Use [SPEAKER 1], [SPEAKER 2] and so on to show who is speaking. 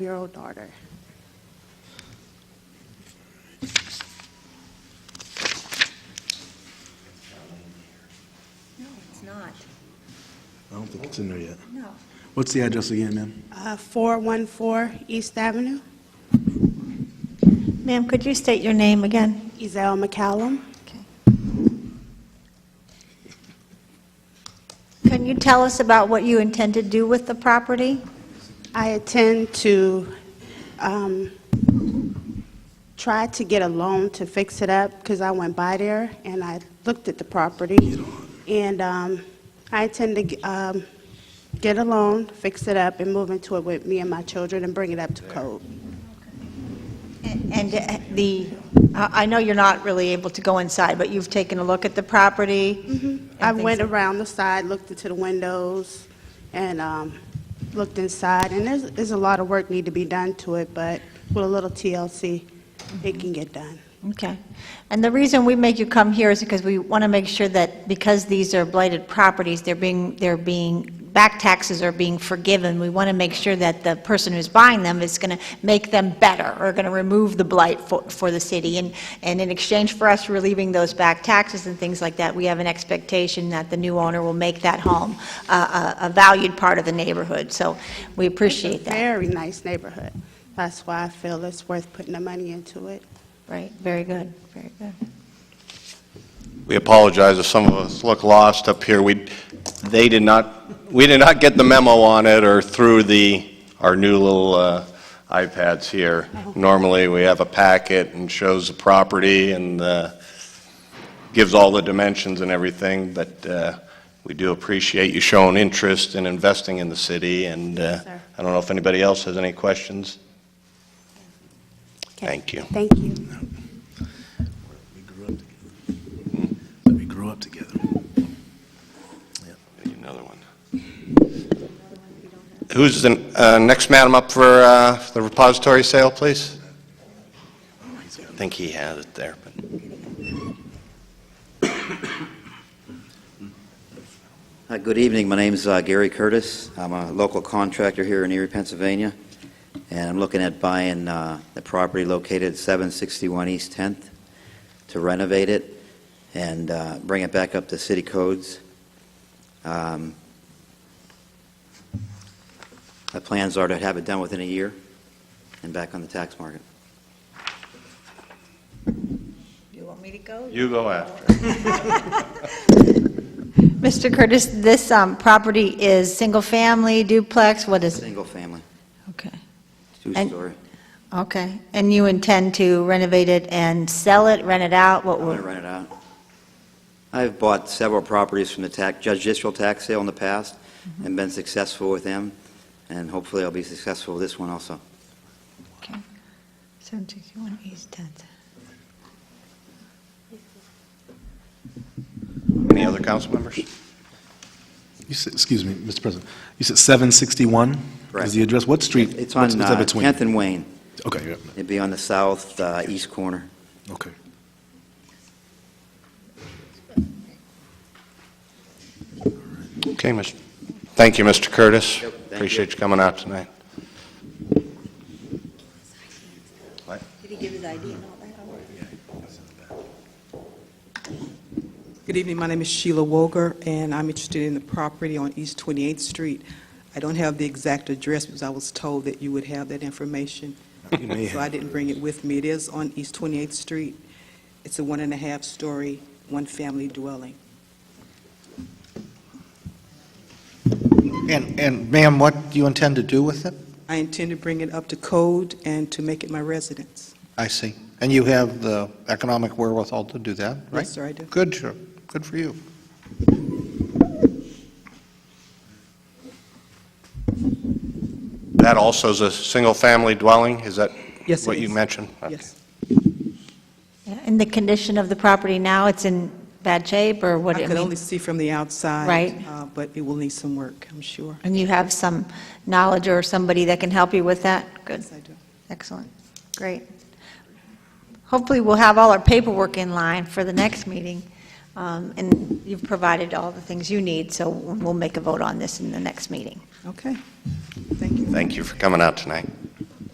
[SPEAKER 1] year-old daughter.
[SPEAKER 2] No, it's not.
[SPEAKER 3] I don't think it's in there yet.
[SPEAKER 2] No.
[SPEAKER 3] What's the address again, ma'am?
[SPEAKER 1] Uh, 414 East Avenue,
[SPEAKER 4] Ma'am, could you state your name again?
[SPEAKER 1] Ezell McCallum.
[SPEAKER 4] Can you tell us about what you intend to do with the property?
[SPEAKER 1] I intend to um, try to get a loan to fix it up because I went by there and I looked at the property. And um, I intend to g- um, get a loan, fix it up, and move into it with me and my children and bring it up to code.
[SPEAKER 4] And uh, the, I I know you're not really able to go inside, but you've taken a look at the property? and
[SPEAKER 1] I
[SPEAKER 4] things
[SPEAKER 1] went
[SPEAKER 4] like-
[SPEAKER 1] around the side, looked into the windows, and um, looked inside, and there's, there's a lot of work need to be done to it, but with a little TLC, it
[SPEAKER 4] Mm-hmm.
[SPEAKER 1] can get done.
[SPEAKER 4] Okay. And the reason we make you come here is because we want to make sure that because these are blighted properties, they're being, they're being, back taxes are being forgiven. We want to make sure that the person who's buying them is going to make them better or going to remove the blight for, for the city. And, and in exchange for us relieving those back taxes and things like that, we have an expectation that the new owner will make that home uh, a, a valued part of the neighborhood. So we appreciate
[SPEAKER 1] It's a
[SPEAKER 4] that.
[SPEAKER 1] Very nice neighborhood. That's why I feel it's worth putting the money into it.
[SPEAKER 4] Right, very good, very good.
[SPEAKER 5] We apologize if some of us look lost up here. We, they did not, we did not get the memo on it or through the, our new little uh, iPads here. Normally, we have a packet and shows the property and uh, gives all the dimensions and everything, but uh, we do appreciate you showing interest in investing in the city, and uh,
[SPEAKER 1] Yes, sir.
[SPEAKER 5] I don't know if anybody else has any questions?
[SPEAKER 1] Okay.
[SPEAKER 5] Thank you.
[SPEAKER 1] Thank you.
[SPEAKER 3] We grew up together. Hmm. Oh, We grew up together.
[SPEAKER 5] Need Another one. Who's the uh, next madam up for uh, for the repository sale, please? I think he had it there, but
[SPEAKER 6] Hi, good evening. My name's uh, Gary Curtis. I'm a local contractor here in Erie, Pennsylvania, and I'm looking at buying uh, the property located at 761 East 10th to renovate it and uh, bring it back up to city codes. Um, My plans are to have it done within a year and back on the tax market.
[SPEAKER 4] You want me to go?
[SPEAKER 5] you go after.
[SPEAKER 4] Mr. Curtis, this um, property is single-family, duplex, what is it?
[SPEAKER 6] Single family,
[SPEAKER 4] Okay, And-
[SPEAKER 6] two-story.
[SPEAKER 4] okay. And you intend to renovate it and sell it, rent it out? What
[SPEAKER 6] I'm going to
[SPEAKER 4] will,
[SPEAKER 6] rent it out. I've bought several properties from the tax, judicial tax sale in the past and been successful with them, and hopefully I'll be successful with this one also.
[SPEAKER 4] okay. 761 East 10th.
[SPEAKER 5] Any other council members?
[SPEAKER 3] You said, excuse me, Mr. President, you said 761
[SPEAKER 6] Correct.
[SPEAKER 3] is the address? What street?
[SPEAKER 6] It's
[SPEAKER 3] what's-
[SPEAKER 6] on
[SPEAKER 3] what's that
[SPEAKER 6] uh,
[SPEAKER 3] between?
[SPEAKER 6] 10th and Wayne.
[SPEAKER 3] Okay, yeah,
[SPEAKER 6] It'd be on the south uh, east corner.
[SPEAKER 3] okay.
[SPEAKER 5] Okay, Mr. Thank you, Mr. Curtis.
[SPEAKER 6] Yep, thank you.
[SPEAKER 5] Appreciate you coming out tonight.
[SPEAKER 2] Did he give his ID and all that?
[SPEAKER 7] Good evening, my name is Sheila Woger, and I'm interested in the property on East 28th Street. I don't have the exact address because I was told that you would have that information,
[SPEAKER 3] You may
[SPEAKER 7] so I didn't bring it with me. It is on East 28th Street. It's a one-and-a-half-story, one-family dwelling.
[SPEAKER 8] And, and ma'am, what do you intend to do with it?
[SPEAKER 7] I intend to bring it up to code and to make it my residence.
[SPEAKER 8] I see. And you have the economic wherewithal to do that, right?
[SPEAKER 7] Yes, sir, I do.
[SPEAKER 8] Good, sure. Good for you.
[SPEAKER 5] That also is a single-family dwelling, is that
[SPEAKER 7] Yes, it
[SPEAKER 5] what you
[SPEAKER 7] is.
[SPEAKER 5] mentioned?
[SPEAKER 7] Yes.
[SPEAKER 4] Yeah, And the condition of the property now, it's in bad shape, or what?
[SPEAKER 7] I could
[SPEAKER 4] mean-
[SPEAKER 7] only see from the outside.
[SPEAKER 4] Right.
[SPEAKER 7] uh, But it will need some work, I'm sure.
[SPEAKER 4] And you have some knowledge or somebody that can help you with that? Good.
[SPEAKER 7] Yes, I do.
[SPEAKER 4] Excellent, great. Hopefully, we'll have all our paperwork in line for the next meeting, Um, and you've provided all the things you need, so we'll make a vote on this in the next meeting.
[SPEAKER 7] Okay, thank you.
[SPEAKER 5] Thank you for coming out tonight.